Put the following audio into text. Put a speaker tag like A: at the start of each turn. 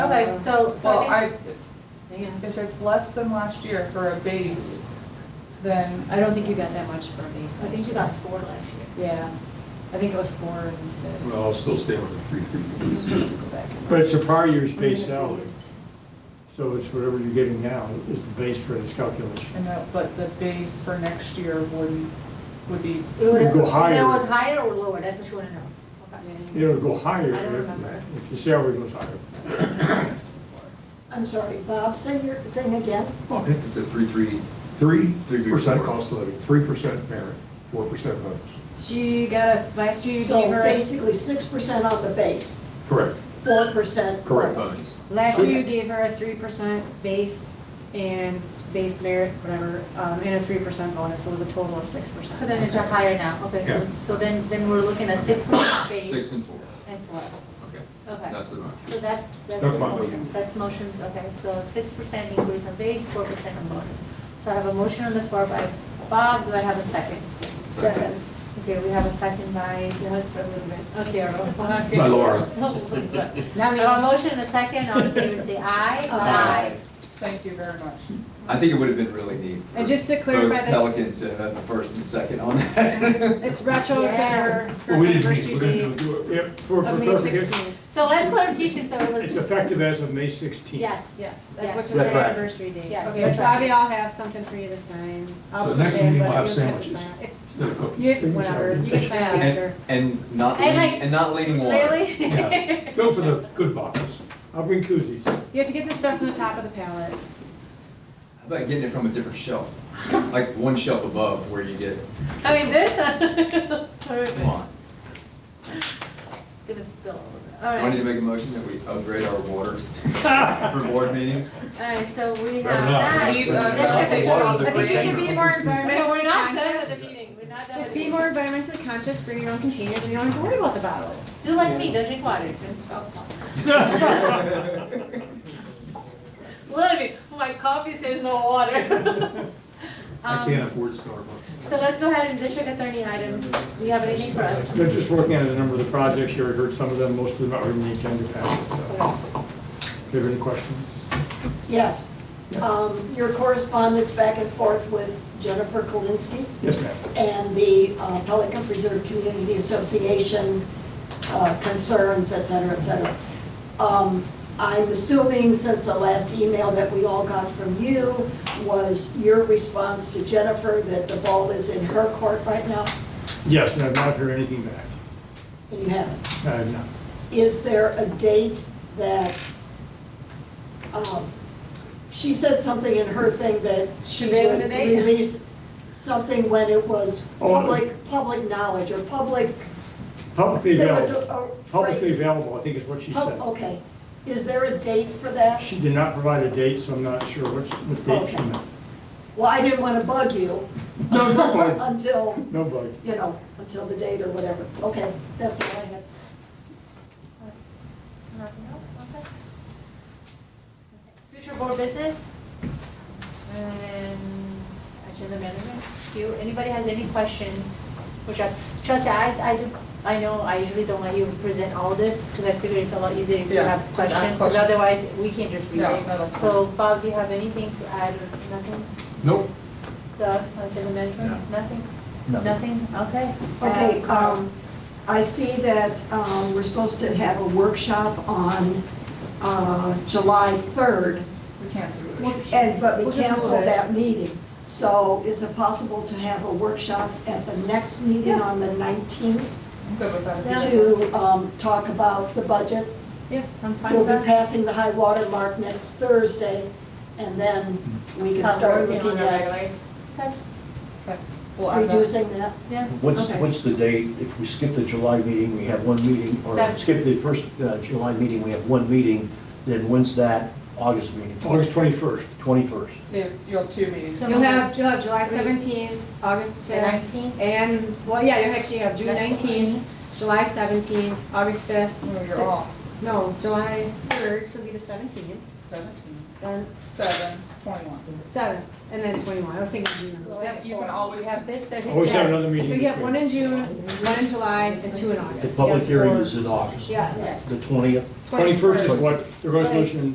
A: Right, so, so
B: Well,
A: I
B: I,
A: think, yeah,
B: if it's less than last year for a base, then,
C: I don't think you got that much for me.
A: I think you got four last year.
C: Yeah, I think it was four instead.
D: Well, I'll still stay with the three, three.
C: Go back and-
E: But it's a prior year's Mm-hmm. base salary, so it's whatever you're getting now is the base for this calculation.
B: and the, but the base for next year would, would be,
A: It was-
E: It'd go
A: It
E: higher.
A: was higher or lower, that's what you wanna know. Okay.
C: Yeah.
E: It'll go higher
A: I
E: if,
A: don't remember.
E: if the salary goes higher.
F: I'm sorry, Bob, say your thing again.
D: I think it's at three, three.
E: Three
D: Three
E: percent
D: percent.
E: cost of living, three percent merit, four percent bonus.
C: She got, a last year you
F: So
C: gave her, a-
F: basically, six percent on the base,
E: Correct.
F: four percent.
E: Correct.
C: last year you gave her a three percent base and base merit, whatever, um, and a three percent bonus, so it was a total of six percent.
A: So then it's a higher now, okay, so,
E: Yeah.
A: so then, then we're looking at six percent base
D: Six and four,
A: and four,
D: okay,
A: okay.
D: that's the max.
A: So that's, that's
E: That's
A: the
E: my
A: motion,
E: motion.
A: that's motion, okay, so six percent increase on base, four percent on bonus. So I have a motion on the floor by Bob, do I have a second?
F: Second.
A: Okay, we have a second by, what, for a little bit, okay, roll call.
D: By Laura.
A: Now, we have a motion and a second, all in favor say aye.
F: Aye.
B: thank you very much.
D: I think it would have been really neat.
C: And just to
D: for
C: clarify, that's-
D: Pelican to have the first and second on that.
C: It's retro to her. her anniversary date
D: do
E: Yep, for,
C: Of
E: for
C: May
E: clarification,
C: sixteenth,
A: So let's clarification, so it
E: it's
A: was,
E: effective as of May sixteenth.
A: yes, yes,
C: yes, that's what
A: yes.
C: was her
G: That's right.
C: anniversary date.
A: Yes,
C: Okay,
A: that's right.
C: Bobby, I'll have something for you to sign. I'll
D: So
C: put
D: next
C: it in,
D: meeting we'll
C: but
D: have
C: you'll to
D: sandwiches.
C: sign it. It's-
D: Instead of cooking.
C: You, whatever, you can sign it after.
D: And, and not,
A: And
D: leaning-
A: like-
D: and not leaning water.
A: Really?
D: Yeah. Go for the good boxes.
E: I'll bring koozies.
C: You have to get the stuff from the top of the pallet.
D: How about getting it from a different shelf? Like one shelf above where you get,
A: I mean, this,
D: come on.
A: it's gonna spill over.
D: Do
A: All
D: I need to
A: right,
D: make a motion that we upgrade our water for board meetings?
A: all right, so we have
E: Better not.
A: that.
E: You,
A: That
E: uh,
A: should be-
G: Water
A: I think you should be more
C: Okay, we're
A: environmentally
C: not done
A: conscious.
C: with the meeting, we're not done.
A: Just
C: with
A: be
C: the
A: more,
C: meeting. environmentally conscious, bring your own containers, and you don't have to worry about the bottles.
A: do like me, don't drink water, drink alcohol. Literally, my coffee says no water.
C: Um,
A: Um,
D: I can't afford Starbucks.
A: So let's go ahead and district attorney item, do you have anything for us?
E: They're just working on a number of the projects, you already heard some of them, most of them are in the agenda packet,
D: Oh,
E: so. Do you have any questions?
F: Yes. Um, Your correspondence back and forth with Jennifer Kalinsky
E: Yes, ma'am.
F: and the uh, Pelican Preserve Community Association uh, concerns, et cetera, et cetera. Um, I'm assuming since the last email that we all got from you was your response to Jennifer that the ball is in her court right now,
E: Yes, and I've not heard anything back. Uh,
F: and you haven't.
E: I have not.
F: Is there a date that, um, she said something in her thing that she
C: She made
F: would
C: it a date.
F: release something when it was
E: Oh, uh,
F: public, public knowledge or public,
E: Publicly
F: There was a-
E: available,
F: a
E: publicly
F: phrase.
E: available, I think is what she
F: pub-
E: said.
F: okay. Is there a date for that?
E: She did not provide a date, so I'm not sure which, what date she
F: Okay.
E: meant.
F: Well, I didn't want to bug you.
E: No, no bug.
F: Until,
E: Nobody.
F: you know, until the date or whatever. Okay, that's all I had.
A: Nothing else, okay. Future board business? And agenda management, Do you, anybody has any questions? Which I, trust I, I, do- I know I usually don't let you present all this, because I figure it's a lot easier if you
B: Yeah,
A: have
B: ask
A: questions, because
B: questions.
A: otherwise we can just read
B: Yeah,
A: it.
B: that'll-
A: So Bob, do you have anything to add or nothing?
D: Nope.
A: Doug, on agenda management, nothing? Nothing, okay.
F: Okay,
A: Uh, Carl.
F: um, I see that, um, we're supposed to have a workshop on, uh, July 3rd.
B: We can't do it.
F: And, but we
C: We'll just
F: canceled
C: move it.
F: that meeting. So is it possible to have a workshop at the next meeting on the 19th
B: I'm good with that.
A: Yeah.
F: to um, talk about the budget?
A: Yeah, I'm fine
F: We'll
A: with
F: be
A: that.
F: passing the high water mark next Thursday, and then we can
A: Start
F: start
A: Mm-hmm. working on
F: looking
A: it
F: at
A: regularly. Okay,
B: We'll add that.
F: reducing that.
A: yeah.
G: What's,
A: okay.
G: what's the date? If we skip the July meeting, we have one meeting, or
A: Seven.
G: skip the first uh, July meeting, we have one meeting, then when's that August meeting?
E: August 21st.
G: 21st.
B: So you have- you have two meetings.
A: So-
C: You'll have, you'll have July
A: Three.
C: seventeenth, August
A: The
C: fifth,
A: 19th?
C: and, well, yeah, you actually have June
A: That's
C: nineteenth, July seventeenth, August fifth.
B: No, You're off,
C: No, July third, so it'll be the seventeenth,
B: seventeen,
C: then
B: seven, twenty-one.
C: seven, and then twenty-one, I was thinking June.
B: Yes, you
A: Or
B: can always
A: We have this, there's.
E: Always Oh, have
C: Yeah.
E: another
C: So
E: meeting.
C: you have one in June, one in July, and two in August.
G: The public
C: You have
G: hearing
C: four.
G: is in August.
C: Yes.
G: The 20th?
E: 21st is what the resolution